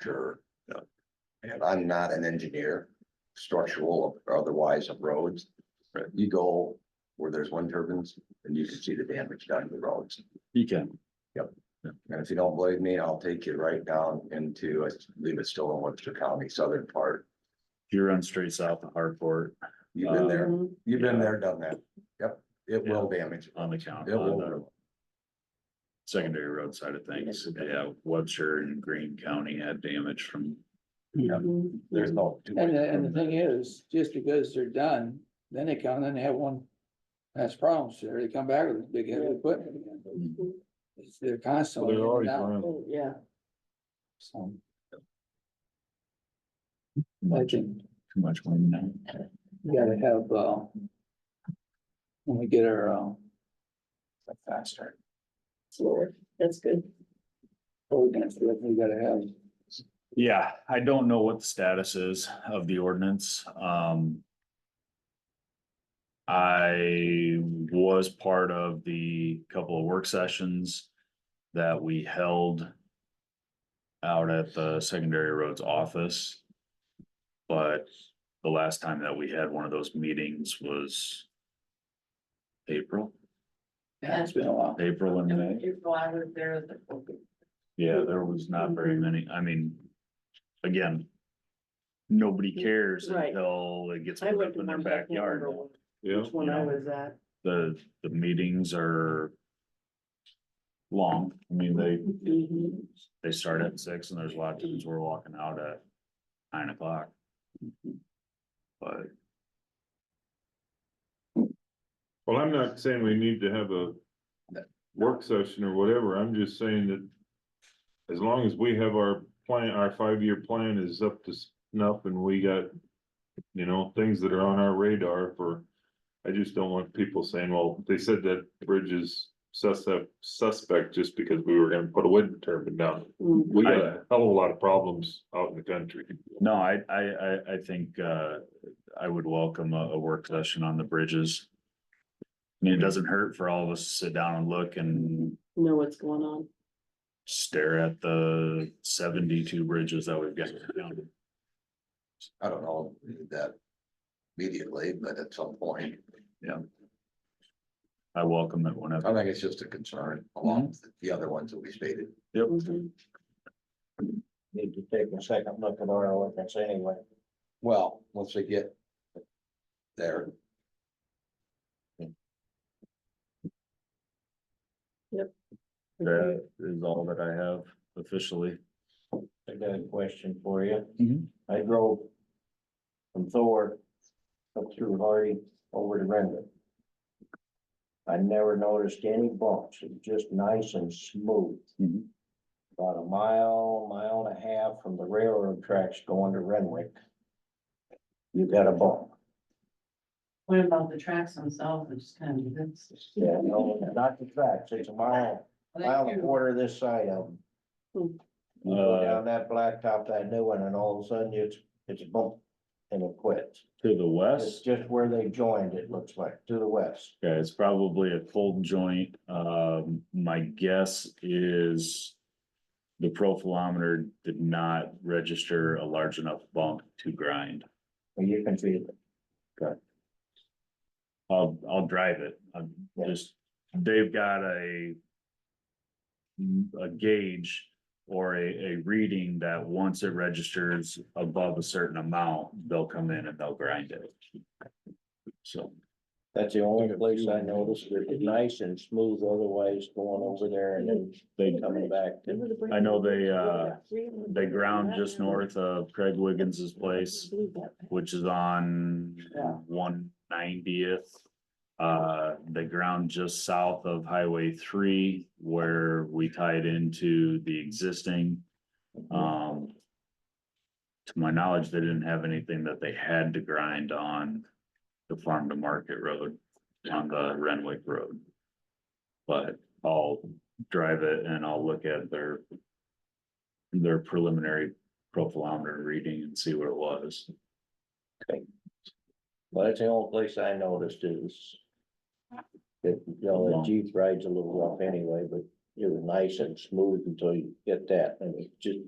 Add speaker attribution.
Speaker 1: structure.
Speaker 2: Yeah.
Speaker 1: And I'm not an engineer, structural or otherwise of roads.
Speaker 2: Right.
Speaker 1: You go where there's wind turbines and you can see the damage done to the roads.
Speaker 2: You can.
Speaker 1: And if you don't believe me, I'll take you right down into, I believe it's still in Webster County, southern part.
Speaker 2: You run straight south of Hartford
Speaker 1: You've been there,
Speaker 3: Mhm.
Speaker 1: you've been there, done that. Yep, it will damage.
Speaker 2: on the count,
Speaker 1: It
Speaker 2: on
Speaker 1: will.
Speaker 2: the secondary road side of things. Yeah, Webster and Green County had damage from,
Speaker 1: Yeah.
Speaker 3: Mhm.
Speaker 1: There's no. two ways
Speaker 4: And, the- and the
Speaker 1: from
Speaker 4: thing is, just because they're done, then they come and then they have one, that's problems there, they come back with this big heavy equipment again.
Speaker 3: Mhm.
Speaker 4: It's, they're constantly.
Speaker 2: Well, they're always
Speaker 4: down,
Speaker 2: running.
Speaker 3: Oh, Yeah,
Speaker 4: so Um, I
Speaker 2: much-
Speaker 4: think
Speaker 2: too much wind now.
Speaker 4: we gotta have, uh, when we get our, uh, faster
Speaker 3: slower, that's good.
Speaker 4: ordinance, we gotta have,
Speaker 2: Yeah, I don't know what the status is of the ordinance, um. I was part of the couple of work sessions that we held. Out at the secondary roads office. But the last time that we had one of those meetings was. April,
Speaker 4: yeah, it's been a while.
Speaker 2: April and May.
Speaker 3: April, I was there.
Speaker 2: Yeah, there was not very
Speaker 3: Mhm.
Speaker 2: many, I mean, again. Nobody cares
Speaker 3: Right.
Speaker 2: until it gets
Speaker 3: I
Speaker 2: put
Speaker 3: went
Speaker 2: up
Speaker 3: to
Speaker 2: in their
Speaker 3: one, I can't
Speaker 2: backyard.
Speaker 3: remember which
Speaker 2: Yeah.
Speaker 3: One I was at.
Speaker 2: The, the meetings are. Long, I mean, they,
Speaker 3: Mhm.
Speaker 2: they start at six and there's a lot of times we're walking out at nine o'clock. But
Speaker 5: Well, I'm not saying we need to have a work session or whatever, I'm just saying that. As long as we have our plan, our five-year plan is up to snuff and we got. You know, things that are on our radar for, I just don't want people saying, well, they said that bridge is suspect, suspect just because we were gonna put a wind turbine down.
Speaker 3: Mhm.
Speaker 5: We got a hell of a lot of problems out in the country.
Speaker 2: no, I, I, I, I think, uh, I would welcome a, a work session on the bridges. I mean, it doesn't hurt for all of us to sit down and look and
Speaker 3: Know what's going on.
Speaker 2: stare at the seventy-two bridges that we've got. down.
Speaker 1: I don't know that immediately, but at some point,
Speaker 2: I welcome it whenever.
Speaker 1: I think it's just a concern along with the other ones that we stated.
Speaker 3: Mhm.
Speaker 6: need to take a second look at our ordinance anyway.
Speaker 1: Well, once they get there,
Speaker 2: That is all that I have officially.
Speaker 6: I got a question for you.
Speaker 2: Mhm.
Speaker 6: I drove from Thor up through Hardy over to Renwick. I never noticed any bumps. It was just nice and smooth.
Speaker 2: Mhm.
Speaker 6: About a mile, mile and a half from the railroad tracks going to Renwick. You got a bump.
Speaker 7: What about the tracks themselves, it's kind of, that's.
Speaker 6: Yeah, no, not the tracks. It's a mile, mile and a quarter this side of them. You go
Speaker 2: Uh,
Speaker 6: down that blacktop, that new one, and all of a sudden it's, it's a bump and it quits.
Speaker 2: to the
Speaker 6: It's
Speaker 2: west,
Speaker 6: just where they joined, it looks like, to the west.
Speaker 2: okay, it's probably a cold joint. Um, my guess is the profilometer did not register a large enough bump to grind.
Speaker 6: Well, you can feel it.
Speaker 2: I'll, I'll drive it. I'm
Speaker 6: Yeah.
Speaker 2: just, they've got a. A gauge or a, a reading that once it registers above a certain amount, they'll come in and they'll grind it. So,
Speaker 6: That's the only place I noticed. It was nice and smooth otherwise going over there and then
Speaker 2: they,
Speaker 6: coming back.
Speaker 2: I know they, uh, they ground just north of Craig Wiggins's place, which is on
Speaker 7: Yeah.
Speaker 2: one ninetieth. Uh, they ground just south of Highway three where we tied into the existing. Um. To my knowledge, they didn't have anything that they had to grind on the farm to market road, on the Renwick Road. But I'll drive it and I'll look at their. Their preliminary profilometer reading and see what it was.
Speaker 6: But that's the only place I noticed is that, you know, the Jeep rides a little rough anyway, but it was nice and smooth until you get that and it just